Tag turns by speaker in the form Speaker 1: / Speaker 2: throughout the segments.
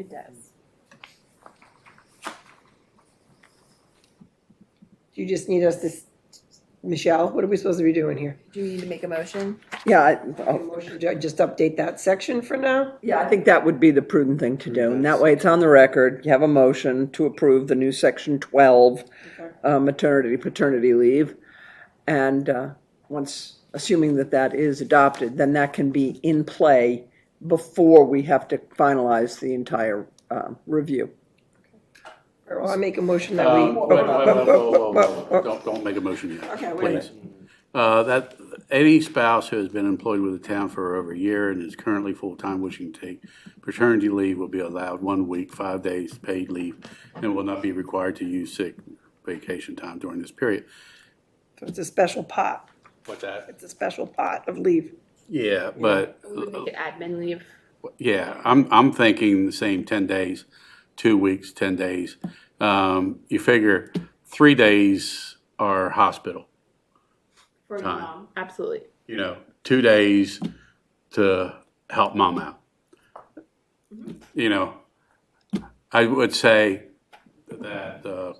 Speaker 1: It does.
Speaker 2: Do you just need us to, s- Michelle, what are we supposed to be doing here?
Speaker 1: Do you need to make a motion?
Speaker 3: Yeah, I-
Speaker 2: A
Speaker 3: oh,
Speaker 2: motion to Just update that section for now?
Speaker 3: yeah, I think that would be the prudent thing to do. And that way it's on the record. You have a motion to approve the new section twelve,
Speaker 2: Okay.
Speaker 3: uh, maternity, paternity leave. And, uh, once, assuming that that is adopted, then that can be in play before we have to finalize the entire, um, review.
Speaker 2: Or I make a motion that
Speaker 4: Uh,
Speaker 3: Um,
Speaker 2: we.
Speaker 4: wait, wait, wait, whoa, whoa, whoa, whoa. Don't, don't make a motion yet.
Speaker 2: Okay, wait a minute.
Speaker 4: Uh, That, any spouse who has been employed with the town for over a year and is currently full-time wishing to take paternity leave will be allowed one week, five days paid leave, and will not be required to use sick vacation time during this period.
Speaker 2: So It's a special pot.
Speaker 4: What's that?
Speaker 2: It's a special pot of leave.
Speaker 4: Yeah, but,
Speaker 1: Make it admin leave.
Speaker 4: yeah, I'm, I'm thinking the same 10 days, two weeks, 10 days. Um, You figure three days are hospital.
Speaker 1: For the
Speaker 4: Time.
Speaker 1: mom. Absolutely.
Speaker 4: you know, two days to help mom out. You know, I would say that uh,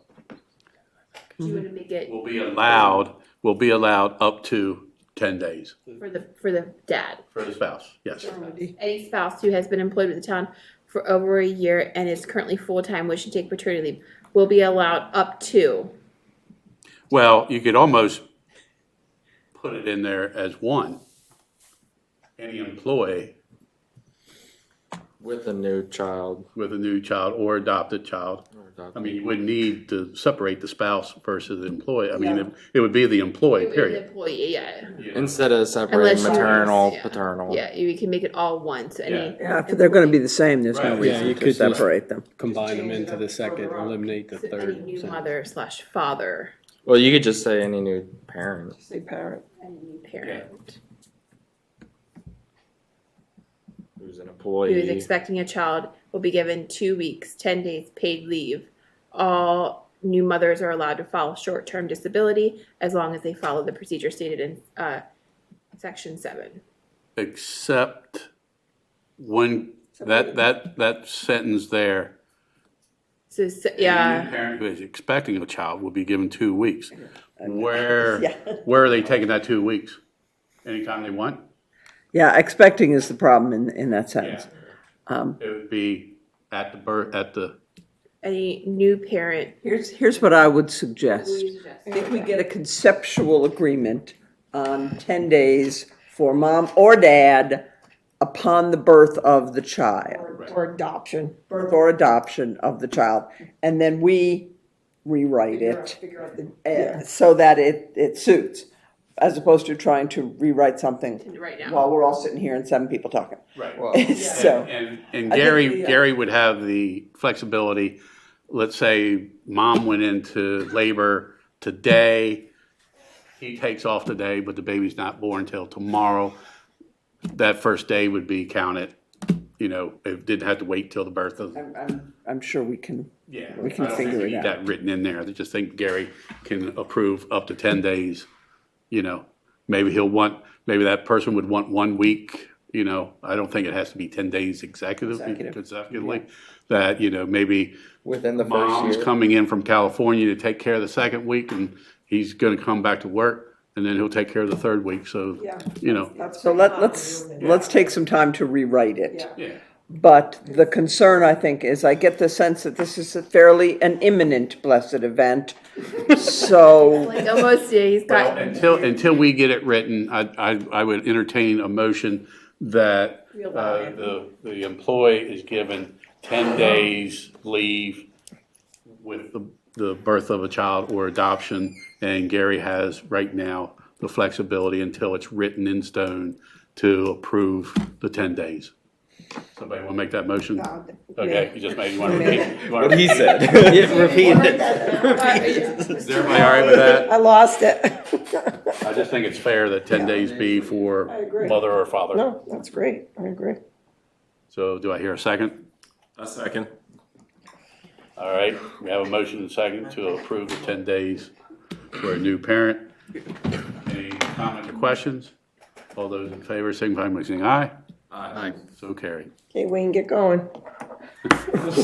Speaker 1: Do you want to make it
Speaker 4: we'll be allowed, we'll be allowed up to 10 days
Speaker 1: for the, for the dad?
Speaker 4: for the spouse, yes.
Speaker 1: Any spouse who has been employed with the town for over a year and is currently full-time wishing to take paternity leave will be allowed up to.
Speaker 4: Well, you could almost put it in there as one. Any employee
Speaker 5: With a new child
Speaker 4: with a new child or adopted child.
Speaker 5: or
Speaker 4: I
Speaker 5: adopted.
Speaker 4: mean, you wouldn't need to separate the spouse versus the employee. I mean, it- it would be the employee, period.
Speaker 1: Employee, yeah,
Speaker 5: Instead of separating
Speaker 1: Unless you-
Speaker 5: maternal,
Speaker 1: yeah.
Speaker 5: paternal.
Speaker 1: yeah, you can make it all once, any.
Speaker 3: Yeah, if they're gonna be the same, there's no
Speaker 6: Right. Yeah,
Speaker 3: reason
Speaker 6: you
Speaker 3: to
Speaker 6: could just-
Speaker 3: separate them.
Speaker 6: combine them into the second, eliminate the
Speaker 1: So Any
Speaker 6: third.
Speaker 1: new
Speaker 6: so-
Speaker 1: mother slash father,
Speaker 5: Well, you could just say any new parent.
Speaker 2: Say parent.
Speaker 1: any new parent
Speaker 5: Who's an
Speaker 1: who is
Speaker 5: employee?
Speaker 1: expecting a child will be given two weeks, ten days paid leave. All new mothers are allowed to file short-term disability as long as they follow the procedure stated in, uh, section seven.
Speaker 4: except when, that, that, that sentence there.
Speaker 1: So, s-
Speaker 4: any
Speaker 1: yeah,
Speaker 4: Parent who is expecting a child will be given two weeks. Where, where are they taking that two weeks? Anytime they want?
Speaker 3: Yeah, expecting is the problem in, in that sentence.
Speaker 4: It would be at the birth, at the,
Speaker 1: any new parent.
Speaker 3: Here's, here's what I would suggest. I think we get a conceptual agreement on ten days for mom or dad upon the birth of the child,
Speaker 2: Or adoption.
Speaker 3: birth or adoption of the child, and then we rewrite it
Speaker 2: Figure out the-
Speaker 3: eh, so that it, it suits, as opposed to trying to rewrite something
Speaker 1: Right now,
Speaker 3: while we're all sitting here and seven people talking.
Speaker 4: right.
Speaker 3: So,
Speaker 4: And, and Gary,
Speaker 3: yeah.
Speaker 4: Gary would have the flexibility, let's say mom went into labor today, he takes off today, but the baby's not born till tomorrow. That first day would be counted, you know, it didn't have to wait till the birth of.
Speaker 3: I'm, I'm sure we can,
Speaker 4: Yeah.
Speaker 3: we can
Speaker 4: I don't think
Speaker 3: figure
Speaker 4: we
Speaker 3: it
Speaker 4: need
Speaker 3: out.
Speaker 4: That written in there, I just think Gary can approve up to ten days, you know. Maybe he'll want, maybe that person would want one week, you know, I don't think it has to be ten days executive,
Speaker 3: Consecutive.
Speaker 4: consecutively. That, you know, maybe
Speaker 5: Within the
Speaker 4: mom's
Speaker 5: first year.
Speaker 4: coming in from California to take care of the second week and he's gonna come back to work and then he'll take care of the third week, so, you know.
Speaker 3: so let, let's, let's take some time to rewrite it.
Speaker 4: Yeah,
Speaker 3: But the concern, I think, is I get the sense that this is a fairly an imminent blessed event. So,
Speaker 1: like almost, yeah, he's got.
Speaker 4: until, until we get it written, I, I, I would entertain a motion that uh, the, the employee is given ten days leave with the, the birth of a child or adoption, and Gary has right now the flexibility until it's written in stone to approve the ten days. Somebody want to make that motion?
Speaker 2: Uh,
Speaker 4: Okay, you just made, you want to repeat? you wanna
Speaker 5: What he
Speaker 4: repeat?
Speaker 5: said. Repeat it.
Speaker 4: Is everybody all right with that?
Speaker 2: I lost it.
Speaker 4: I just think it's fair that ten days be for
Speaker 2: agree.
Speaker 4: mother or father.
Speaker 2: No, that's great. I agree.
Speaker 4: So do I hear a second?
Speaker 5: A second.
Speaker 4: All right, we have a motion and second to approve the ten days for a new parent. Any comments or questions? All those in favor signify by saying aye.
Speaker 5: Aye.
Speaker 4: So carried.
Speaker 2: Okay, Wayne, get going.